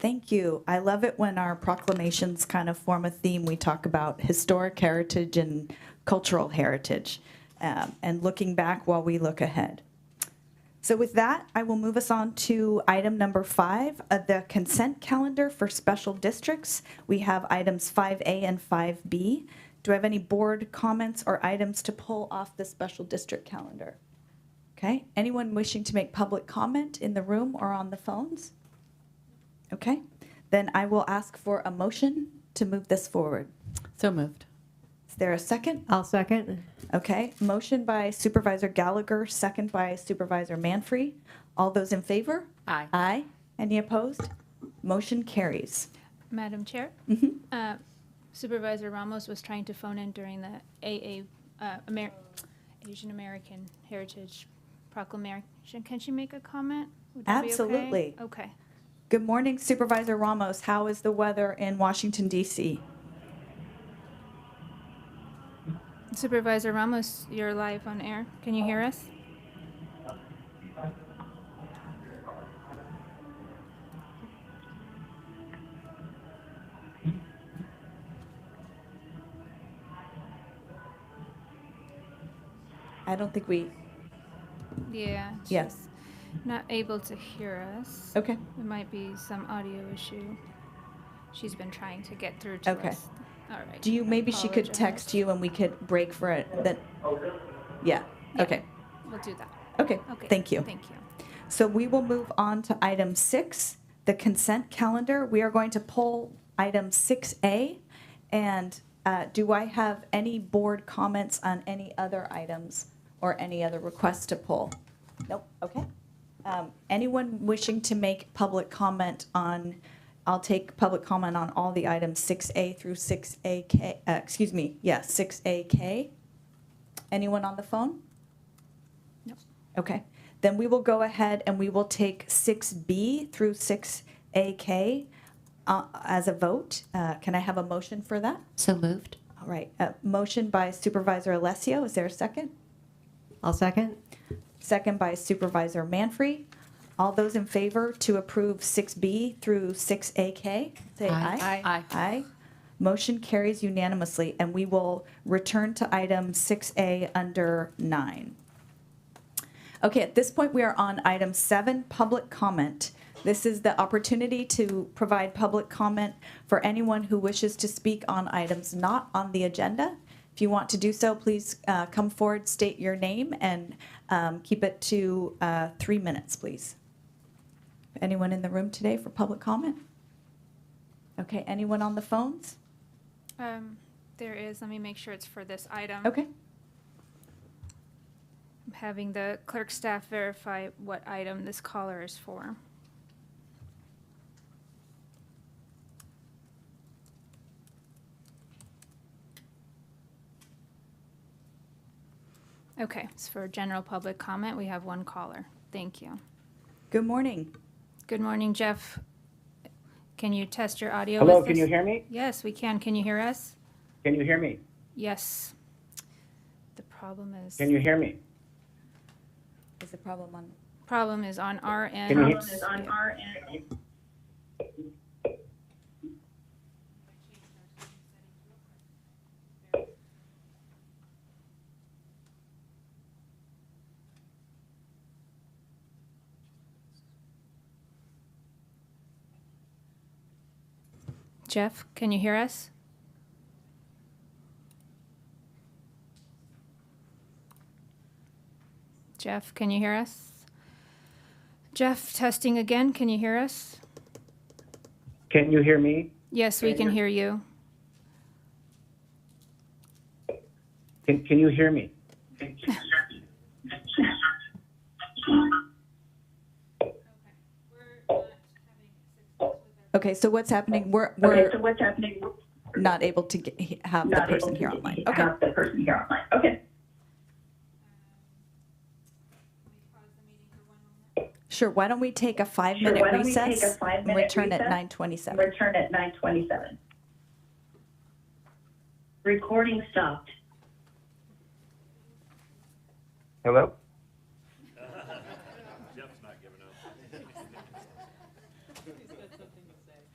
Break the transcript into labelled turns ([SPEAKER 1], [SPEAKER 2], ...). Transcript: [SPEAKER 1] Thank you. I love it when our proclamations kind of form a theme. We talk about historic heritage and cultural heritage, um, and looking back while we look ahead. So with that, I will move us on to item number five, uh, the consent calendar for special districts. We have items 5A and 5B. Do I have any board comments or items to pull off the special district calendar? Okay, anyone wishing to make public comment in the room or on the phones? Okay, then I will ask for a motion to move this forward.
[SPEAKER 2] So moved.
[SPEAKER 1] Is there a second?
[SPEAKER 3] I'll second.
[SPEAKER 1] Okay, motion by Supervisor Gallagher, second by Supervisor Manfree. All those in favor?
[SPEAKER 2] Aye.
[SPEAKER 1] Aye. Any opposed? Motion carries.
[SPEAKER 4] Madam Chair,
[SPEAKER 1] Mhm.
[SPEAKER 4] uh, Supervisor Ramos was trying to phone in during the AA, uh, Amer- Asian American Heritage Proclamation. Can she make a comment? Would that be okay?
[SPEAKER 1] Absolutely.
[SPEAKER 4] Okay.
[SPEAKER 1] Good morning Supervisor Ramos. How is the weather in Washington DC?
[SPEAKER 4] Supervisor Ramos, you're live on air. Can you hear us?
[SPEAKER 1] I don't think we,
[SPEAKER 4] Yeah.
[SPEAKER 1] Yes. Oh.
[SPEAKER 4] she's Not able to hear us.
[SPEAKER 1] okay.
[SPEAKER 4] It might be some audio issue. She's been trying to get through to
[SPEAKER 1] Okay.
[SPEAKER 4] us. All right.
[SPEAKER 1] Do you, maybe she could
[SPEAKER 4] Apologize.
[SPEAKER 1] text you and we could break for it then? Yeah,
[SPEAKER 4] Yeah.
[SPEAKER 1] okay,
[SPEAKER 4] We'll do that.
[SPEAKER 1] okay.
[SPEAKER 4] Okay.
[SPEAKER 1] Thank you.
[SPEAKER 4] Thank you.
[SPEAKER 1] So we will move on to item six, the consent calendar. We are going to pull item 6A. And uh, do I have any board comments on any other items or any other requests to pull? Nope, okay. Um, Anyone wishing to make public comment on, I'll take public comment on all the items 6A through 6AK, uh, excuse me, yeah, 6AK. Anyone on the phone?
[SPEAKER 4] Nope.
[SPEAKER 1] Okay, then we will go ahead and we will take 6B through 6AK uh, as a vote. Uh, Can I have a motion for that?
[SPEAKER 2] So moved.
[SPEAKER 1] All right, a motion by Supervisor Alessio, is there a second?
[SPEAKER 3] I'll second.
[SPEAKER 1] Second by Supervisor Manfree. All those in favor to approve 6B through 6AK, say
[SPEAKER 2] Aye.
[SPEAKER 1] aye.
[SPEAKER 2] Aye.
[SPEAKER 1] Aye. Motion carries unanimously, and we will return to item 6A under 9. Okay, at this point, we are on item seven, public comment. This is the opportunity to provide public comment for anyone who wishes to speak on items not on the agenda. If you want to do so, please uh, come forward, state your name, and um, keep it to uh, three minutes, please. Anyone in the room today for public comment? Okay, anyone on the phones?
[SPEAKER 4] Um, there is, let me make sure it's for this item.
[SPEAKER 1] Okay,
[SPEAKER 4] I'm Having the clerk staff verify what item this caller is for. Okay, it's for general public comment. We have one caller. Thank you.
[SPEAKER 1] good morning.
[SPEAKER 4] Good morning, Jeff. Can you test your audio?
[SPEAKER 5] Hello,
[SPEAKER 4] with
[SPEAKER 5] can
[SPEAKER 4] us?
[SPEAKER 5] you hear me?
[SPEAKER 4] Yes, we can. Can you hear us?
[SPEAKER 5] Can you hear me?
[SPEAKER 4] Yes. The problem is.
[SPEAKER 5] Can you hear me?
[SPEAKER 1] Is the problem on?
[SPEAKER 4] Problem is on our end.
[SPEAKER 5] Problem
[SPEAKER 4] Jeff, can you hear us? Jeff, can you hear us? Jeff, testing again, can you hear us?
[SPEAKER 5] Can you hear me?
[SPEAKER 4] Yes, we
[SPEAKER 5] Can
[SPEAKER 4] can
[SPEAKER 5] you-
[SPEAKER 4] hear you.
[SPEAKER 5] Can, can you hear me?
[SPEAKER 1] Okay, so what's happening? We're, we're
[SPEAKER 6] okay, so what's happening? We're
[SPEAKER 1] not able to get- have the
[SPEAKER 6] not able
[SPEAKER 1] person
[SPEAKER 6] to
[SPEAKER 1] here
[SPEAKER 6] get- um,
[SPEAKER 1] online. Okay.
[SPEAKER 6] Have the person here online. Okay.
[SPEAKER 1] Sure, why don't we take a
[SPEAKER 6] Sure,
[SPEAKER 1] five-minute
[SPEAKER 6] why don't we take a
[SPEAKER 1] recess? And
[SPEAKER 6] five-minute
[SPEAKER 1] return at
[SPEAKER 6] recess?
[SPEAKER 1] nine twenty-seven.
[SPEAKER 6] Return at 9:27.
[SPEAKER 7] Recording stopped.
[SPEAKER 5] Hello?